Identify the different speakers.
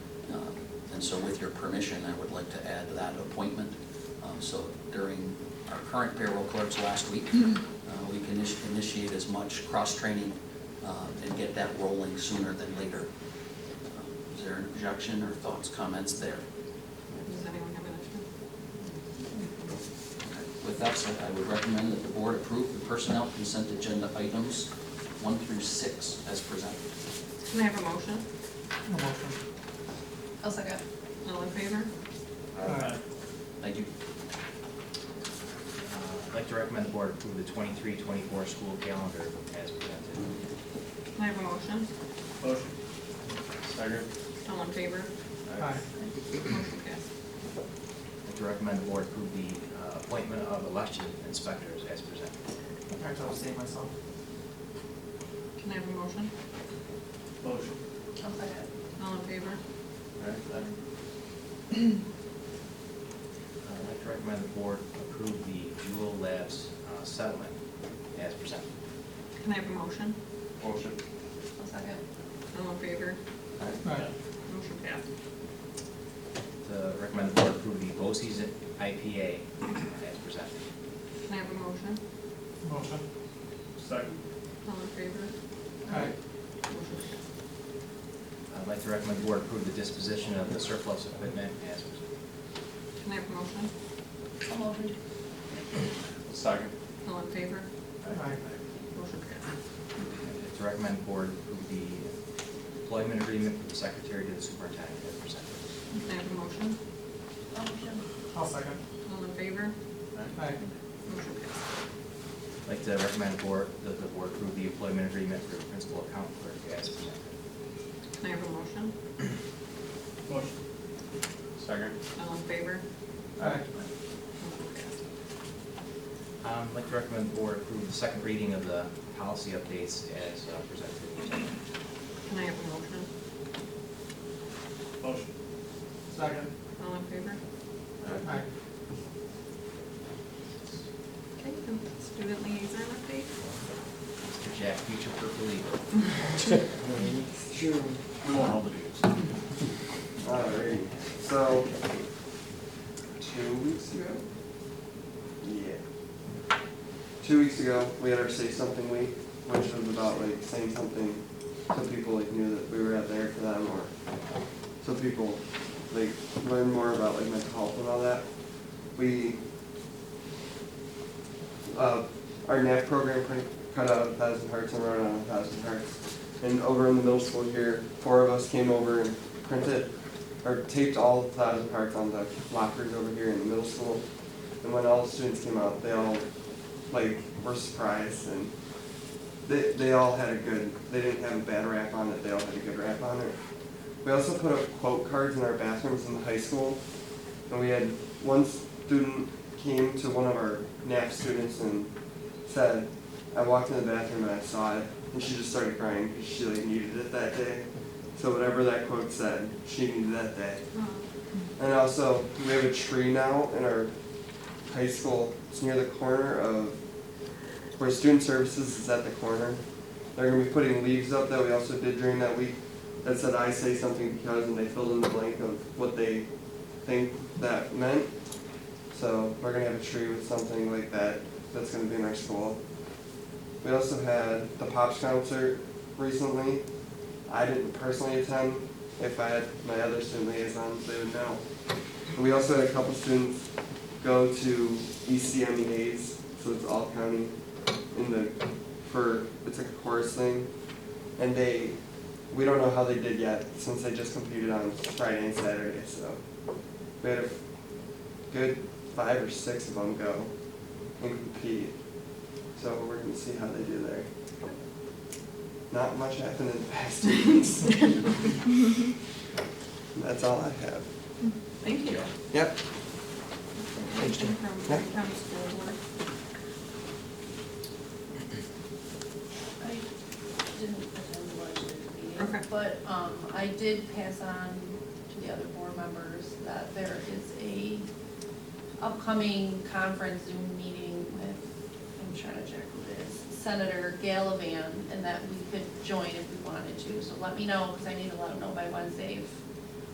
Speaker 1: Um, And so with your permission, I would like to add that appointment. Um, So during our current payroll clerk's last week, uh, we can initi- initiate as much cross-training uh, and get that rolling sooner than later. Um, Is there an objection or thoughts, comments there?
Speaker 2: Does anyone have an issue?
Speaker 1: With that said, I would recommend that the board approve the personnel consent agenda items one through six as presented.
Speaker 2: Can I have a motion?
Speaker 3: I'll second.
Speaker 2: All in favor?
Speaker 4: Aye.
Speaker 1: Thank you.
Speaker 5: I'd like to recommend the board approve the 23-24 school calendar as presented.
Speaker 2: Can I have a motion?
Speaker 4: Motion. Second.
Speaker 2: All in favor?
Speaker 4: Aye.
Speaker 2: Motion passed.
Speaker 5: I'd like to recommend the board approve the uh, appointment of election inspectors as presented.
Speaker 6: I have to abstain myself.
Speaker 2: Can I have a motion?
Speaker 4: Motion.
Speaker 3: I'll second.
Speaker 2: All in favor?
Speaker 5: Uh, I'd like to recommend the board approve the Jewel Labs uh, settlement as presented.
Speaker 2: Can I have a motion?
Speaker 4: Motion.
Speaker 3: I'll second.
Speaker 2: All in favor?
Speaker 6: Aye.
Speaker 2: Motion passed.
Speaker 5: To recommend the board approve the BOCES IPA uh, as presented.
Speaker 2: Can I have a motion?
Speaker 6: Motion.
Speaker 4: Second.
Speaker 2: All in favor?
Speaker 6: Aye.
Speaker 2: Motion passed.
Speaker 5: I'd like to recommend the board approve the disposition of the surplus equipment as presented.
Speaker 2: Can I have a motion?
Speaker 3: I'll motion.
Speaker 4: Second.
Speaker 2: All in favor?
Speaker 6: Aye.
Speaker 2: Motion passed.
Speaker 5: I'd To recommend the board approve the employment agreement for the secretary to the superintendent as presented.
Speaker 2: Can I have a motion?
Speaker 3: I'll motion.
Speaker 6: I'll second.
Speaker 2: All in favor?
Speaker 6: Aye.
Speaker 2: Motion passed.
Speaker 5: I'd like to recommend the board, that the board approve the employment agreement for the principal account clerk as presented.
Speaker 2: Can I have a motion?
Speaker 4: Motion. Second.
Speaker 2: All in favor?
Speaker 6: Aye.
Speaker 2: Motion passed.
Speaker 5: Um, I'd like to recommend the board approve the second reading of the policy updates as uh, presented.
Speaker 2: Can I have a motion?
Speaker 4: Motion.
Speaker 6: Second.
Speaker 2: All in favor?
Speaker 6: Aye.
Speaker 2: Okay, then student liaison update?
Speaker 5: Mr. Jack, future purple leader.
Speaker 7: Sure.
Speaker 4: We won't hold it against you.
Speaker 7: Alright, so, two weeks ago? Yeah. Two weeks ago, we had our Say Something Week, which was about like saying something so people like knew that we were out there for them or so people like learn more about like mental health and all that. We uh, our NAP program kind of cut out a thousand hearts and wrote on a thousand hearts. And over in the middle school here, four of us came over and printed or taped all thousand hearts on the lockers over here in the middle school. And when all the students came out, they all like were surprised and they they all had a good they didn't have a bad rap on it, they all had a good rap on it. We also put up quote cards in our bathrooms in the high school and we had one student came to one of our NAP students and said, I walked in the bathroom and I saw it, and she just started crying because she like needed it that day. So whatever that quote said, she needed that day.
Speaker 2: Um,
Speaker 7: And also, we have a tree now in our high school. It's near the corner of where student services is at the corner. They're gonna be putting leaves up that we also did during that week that said I say something because and they filled in the blank of what they think that meant. So we're gonna have a tree with something like that that's gonna be in our school. We also had the Pops concert recently. I didn't personally attend. If I had my other student liaisons, they would know. We also had a couple students go to E ECMEA's, so it's all county in the, for, it's like a chorus thing. And they, we don't know how they did yet, since they just competed on Friday and Saturday, so. We had a good five or six of them go and compete. So we're gonna see how they do there. Not much happened in the past two weeks. That's all I have.
Speaker 2: Thank you.
Speaker 7: Yep.
Speaker 2: Information from
Speaker 7: Yeah.
Speaker 2: Green County School Board.
Speaker 3: I didn't attend the legislative
Speaker 2: Okay.
Speaker 3: meeting, but, um, I did pass on to the other board members that there is a upcoming conference Zoom meeting with, I'm trying to check who it is, Senator Gallivan, and that we could join if we wanted to, so let me know, because I need to let him know by Wednesday if